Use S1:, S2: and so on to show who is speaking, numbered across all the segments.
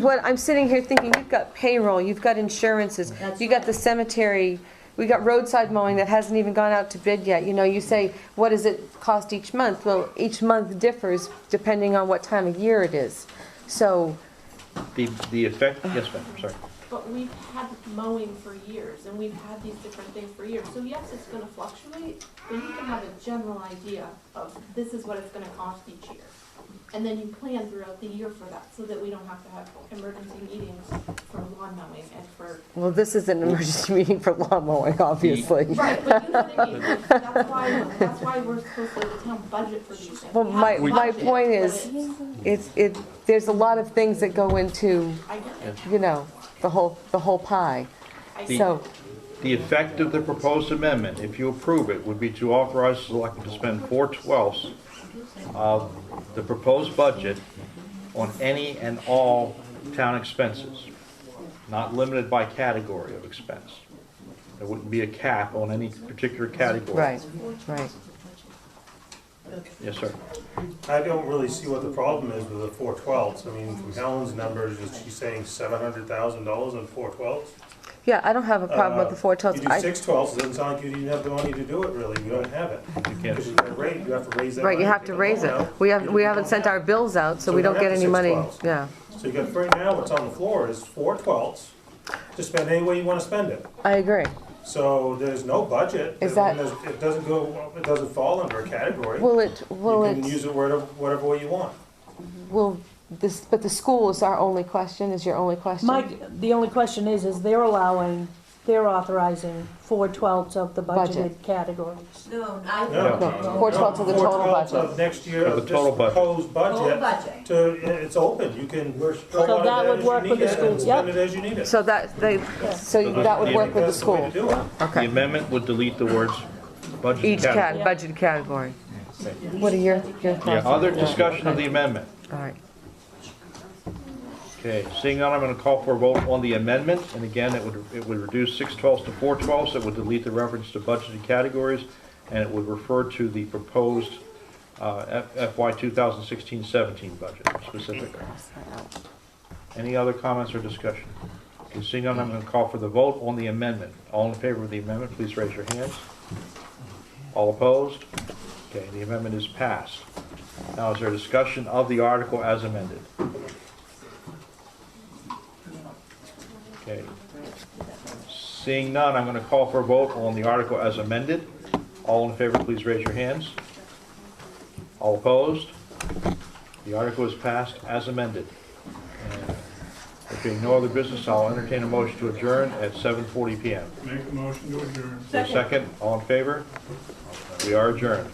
S1: What, I'm sitting here thinking, you've got payroll, you've got insurances,
S2: That's
S1: you got
S2: right.
S1: the cemetery, we got roadside mowing that hasn't even gone out to bid yet. You know, you say, what does it cost each month? Well, each month differs depending on what time of year it is. So,
S3: The, the effect, yes, ma'am, sorry.
S4: But we've had mowing for years, and we've had these different things for years, so yes, it's gonna fluctuate, but you can have a general idea of this is what it's gonna cost each year. And then you plan throughout the year for that, so that we don't have to have emergency meetings for lawn mowing and for.
S1: well, this is an emergency meeting for lawn mowing, obviously.
S4: Right, but you know what I mean, that's why, that's why we're supposed to, the town budget for these things.
S1: Well,
S4: We have
S1: my-
S4: a
S1: my
S4: budget,
S1: point
S4: but
S1: is-
S4: it's-
S1: It's, it, there's a lot of things that go into,
S4: I get it,
S1: you know, the whole, the whole pie.
S4: I get it.
S1: So,
S3: The effect of the proposed amendment, if you approve it, would be to authorize the selectmen to spend four twelfths of the proposed budget on any and all town expenses, not limited by category of expense. There wouldn't be a cap on any particular category.
S1: right, right.
S3: Yes, sir.
S5: I don't really see what the problem is with the four twelves. I mean, from Helen's numbers, is she saying seven hundred thousand dollars on four twelves?
S1: Yeah, I don't have a problem with the four
S5: Uh, You
S1: twelfths.
S5: do
S1: I-
S5: six twelves, it doesn't sound like you didn't have the money to do it, really. You don't have it.
S3: can't.
S5: Because you gotta raise- you have to raise that
S1: Right, you
S5: money
S1: have
S5: get
S1: to
S5: the
S1: raise
S5: loan
S1: it.
S5: out.
S1: We haven't,
S5: You
S1: we
S5: don't
S1: haven't sent
S5: have
S1: our bills out, so we don't get any money. Yeah,
S5: it. So you got, right now, what's on the floor is four twelves to spend any way you wanna spend it.
S1: I agree.
S5: So there's no budget.
S1: Is
S5: I mean,
S1: that-
S5: there's- It doesn't go, it doesn't fall under a category.
S1: Will it, will
S5: You can use
S1: it,
S5: it whatever, whatever way you want.
S1: will this, but the school is our only question, is your only question?
S2: Mike, the only question is, is they're allowing, they're authorizing four twelfths of the budgeted
S1: Budget.
S2: categories.
S6: No, I,
S5: No.
S1: No, four twelfths of the
S5: Four
S1: total
S5: twelfths
S1: budget.
S5: of next year,
S3: Of the
S5: of this
S3: total budget.
S5: proposed
S6: Total
S5: budget,
S6: budget.
S5: to, uh, it's open, you can pull
S2: So
S5: out
S2: that
S5: of it
S2: would
S5: as
S2: work
S5: you need
S2: with the
S5: it and
S2: schools,
S5: spend
S2: yep.
S5: it as you need it.
S1: So that, they, so that would work with the
S5: That's
S1: school?
S5: way to do it.
S3: The
S1: Okay.
S3: amendment would delete the words budget.
S1: Each
S3: category.
S1: cat, budget category. What are your, your thoughts?
S3: Yeah, other discussion of the amendment.
S1: All right.
S3: Okay, seeing none, I'm going to call for a vote on the amendment, and again, it would, it would reduce six twelfths to four twelfths, it would delete the reference to budgeted categories, and it would refer to the proposed uh, F- FY 2016-17 budget specifically. Any other comments or discussion? Okay, Seeing none, I'm going to call for the vote on the amendment. All in favor of the amendment, please raise your hands. All opposed? Okay, the amendment is passed. Now, is there a discussion of the article as amended? Okay. Seeing none, I'm going to call for a vote on the article as amended. All in favor, please raise your hands. All opposed? The article is passed as amended. And There being no other business, I'll entertain a motion to adjourn at 7:40 PM.
S7: Make a motion to adjourn.
S3: Is there a Second, all in favor? We are adjourned.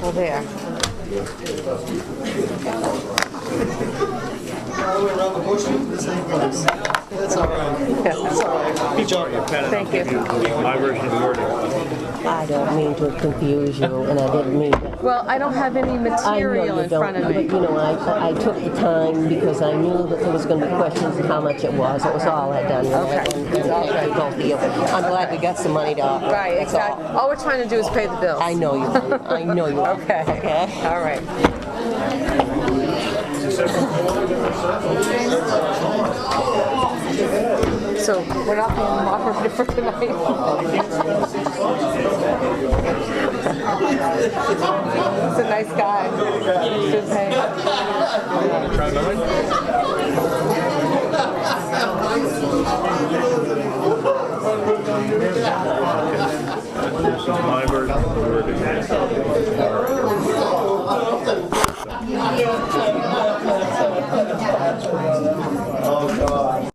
S1: Well, there. Thank you.
S3: My version of the wording.
S8: I don't mean to confuse you, and I didn't mean to.
S1: Well, I don't have any
S8: I know
S1: material
S8: you
S1: in front
S8: don't,
S1: of
S8: but
S1: me.
S8: you know, I, I took the time because I knew that there was gonna be questions of how much it was. That was all I done. Okay. Both of you. I'm glad we got some money to offer.
S1: Right,
S8: That's all.
S1: exactly. All we're trying to do is pay the bills.
S8: I know you, I know you.
S1: Okay.
S8: Okay?
S1: All right. So we're not being mocked for tonight. He's a nice guy. Good pay.
S3: This is my version of the wording.